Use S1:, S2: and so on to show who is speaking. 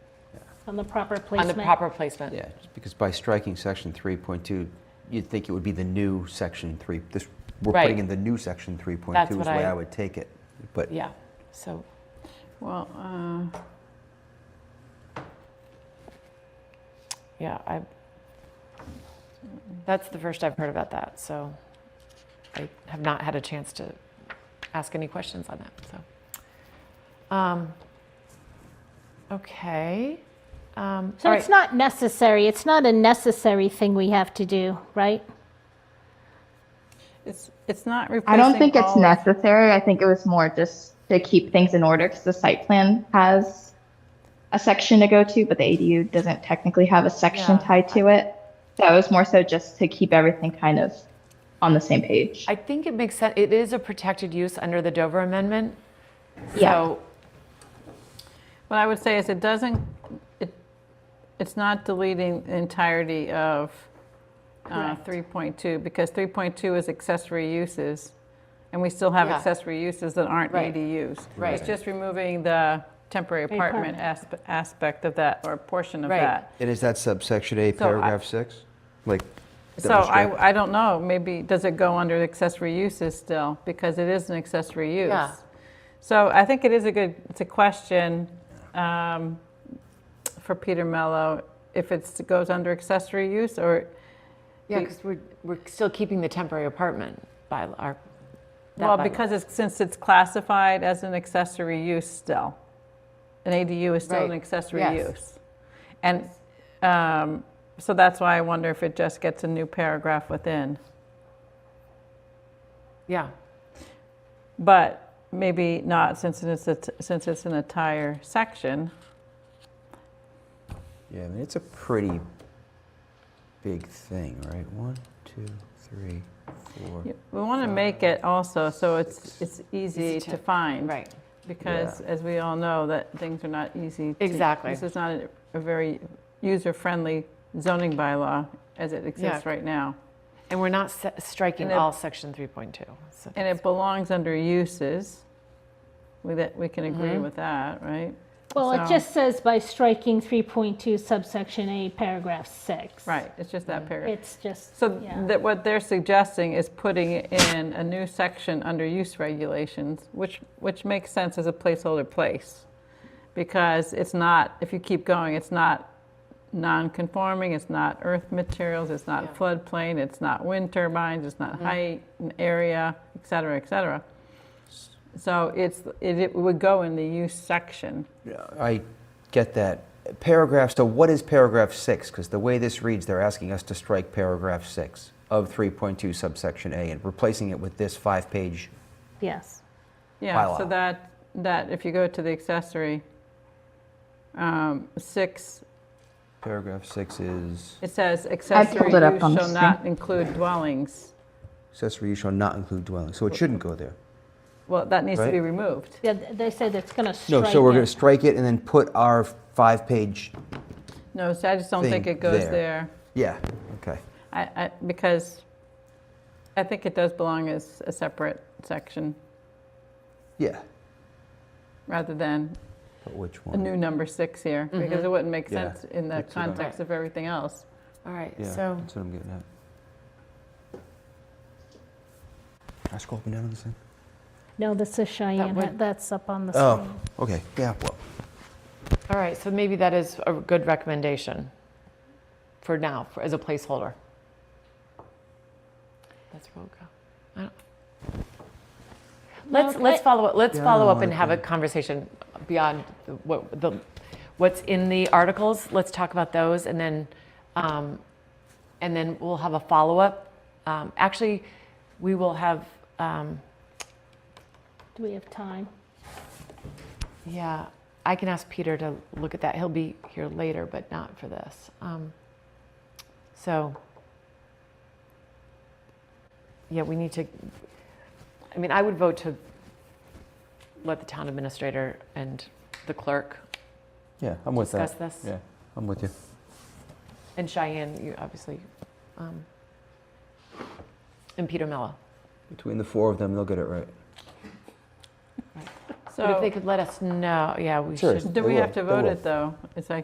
S1: on the proper
S2: on the
S1: placement.
S2: proper placement.
S3: Yeah, just because by striking section 3.2, you'd think it would be the new section 3, this, we're
S2: Right.
S3: putting in the new section 3.2 is
S2: That's
S3: the
S2: what
S3: way
S2: I-
S3: I would take it. But
S2: Yeah, so,
S4: Well, uh,
S2: yeah, I, that's the first I've heard about that, so I have not had a chance to ask any questions on that, so. Um, Okay. um,
S1: So
S2: all
S1: it's
S2: right.
S1: not necessary, it's not a necessary thing we have to do, right?
S4: it's, it's not replacing
S5: I don't think it's
S4: all of-
S5: necessary. I think it was more just to keep things in order because the site plan has a section to go to, but the ADU doesn't technically have a section
S2: Yeah.
S5: tied to it. So it was more so just to keep everything kind of on the same page.
S2: I think it makes sense, it is a protected use under the Dover Amendment.
S5: Yeah.
S2: So
S4: What I would say is it doesn't, it, it's not deleting the entirety of uh,
S1: Correct.
S4: 3.2, because 3.2 is accessory uses, and we still have
S2: Yeah.
S4: accessory uses that aren't
S2: Right.
S4: ADUs.
S2: Right.
S4: It's just removing the temporary apartment asp- aspect of that, or portion of
S2: Right.
S4: that.
S3: And is that subsection A,
S4: So I-
S3: paragraph 6? Like, that
S4: So
S3: was struck?
S4: I, I don't know, maybe, does it go under accessory uses still? Because it is an accessory use.
S2: Yeah.
S4: So I think it is a good, it's a question um, for Peter Mello, if it's, it goes under accessory use or,
S2: Yeah, because we're, we're still keeping the temporary apartment by our. that
S4: well,
S2: bylaw.
S4: because it's, since it's classified as an accessory use still. An ADU is still an
S2: Right.
S4: accessory
S2: Yes.
S4: use. And um, so that's why I wonder if it just gets a new paragraph within.
S2: Yeah,
S4: But maybe not since it's, a- since it's an entire section.
S3: Yeah, I mean, it's a pretty big thing, right? One, two, three, four.
S4: We want to make it also so it's, it's easy to find.
S2: right.
S4: Because as we all know, that things are not easy. to-
S2: Exactly.
S4: This is not a- a very user-friendly zoning bylaw as it exists
S2: Yeah.
S4: right now.
S2: And we're not se- striking
S4: And it-
S2: all section 3.2. So
S4: And it belongs under uses. We, that, we can agree with that, right?
S1: Well, it
S4: So-
S1: just says by striking 3.2 subsection A, paragraph 6.
S4: Right, it's just that paragraph.
S1: It's just,
S4: So
S1: yeah.
S4: that what they're suggesting is putting in a new section under use regulations, which, which makes sense as a placeholder place. Because it's not, if you keep going, it's not non-conforming, it's not earth materials, it's not floodplain, it's not wind turbines, it's not height and area, et cetera, et cetera. So it's, it it would go in the use section.
S3: Yeah, I get that. Paragraph, so what is paragraph 6? Because the way this reads, they're asking us to strike paragraph 6 of 3.2 subsection A and replacing it with this five-page
S1: yes.
S4: Yeah, so
S3: bylaw.
S4: that, that, if you go to the accessory, um, six
S3: Paragraph six is,
S4: It says accessory
S5: it up
S4: use
S5: on the
S4: shall not include dwellings.
S3: accessory use shall not include dwelling, so it shouldn't go there.
S4: Well, that needs to be
S3: Right.
S4: removed.
S1: Yeah, th- They said it's going to strike
S3: No, so we're
S1: it.
S3: gonna strike it and then put our five-page,
S4: No, so I just don't think
S3: Think
S4: it goes
S3: there.
S4: there.
S3: yeah, okay.
S4: I, I, because I think it does belong as a separate section
S3: Yeah,
S4: rather than
S3: but which
S4: a
S3: one?
S4: new number six here,
S5: Mm-hmm.
S4: because it wouldn't make
S3: Yeah,
S4: sense in the
S3: that's what I'm-
S4: context of everything else.
S2: all right,
S3: Yeah,
S2: so
S3: that's what I'm getting at. Can I scroll up and down on this thing?
S1: No, this is Cheyenne,
S2: would-
S1: that's up on the
S3: Oh,
S1: screen.
S3: okay, yeah, well,
S2: all right, so maybe that is a good recommendation for now for, as a placeholder. That's where we'll go. I don't- Let's
S1: No,
S2: let's
S1: I-
S2: follow up. Let's
S3: Yeah, I
S2: follow
S3: don't
S2: up
S3: wanna
S2: and have a
S3: do-
S2: conversation beyond the, what the what's in the articles. Let's talk about those, and then um, and then we'll have a follow up. Um, actually, we will have. Um,
S1: Do we have time?
S2: Yeah, I can ask Peter to look at that. He'll be here later, but not for this. Um, so, yeah, we need to. I mean, I would vote to let the town administrator and the clerk
S3: yeah, I'm with
S2: discuss
S3: that.
S2: this.
S3: Yeah, I'm with you.
S2: And Cheyenne, you obviously, um, and Peter Mello.
S3: Between the four of them, they'll get it right.
S2: but if they
S4: So,
S2: could let us know, yeah, we
S3: Sure.
S2: should.
S4: do
S3: They
S4: we
S3: will,
S4: have to
S3: they
S4: vote
S3: will.
S4: it, though? It's like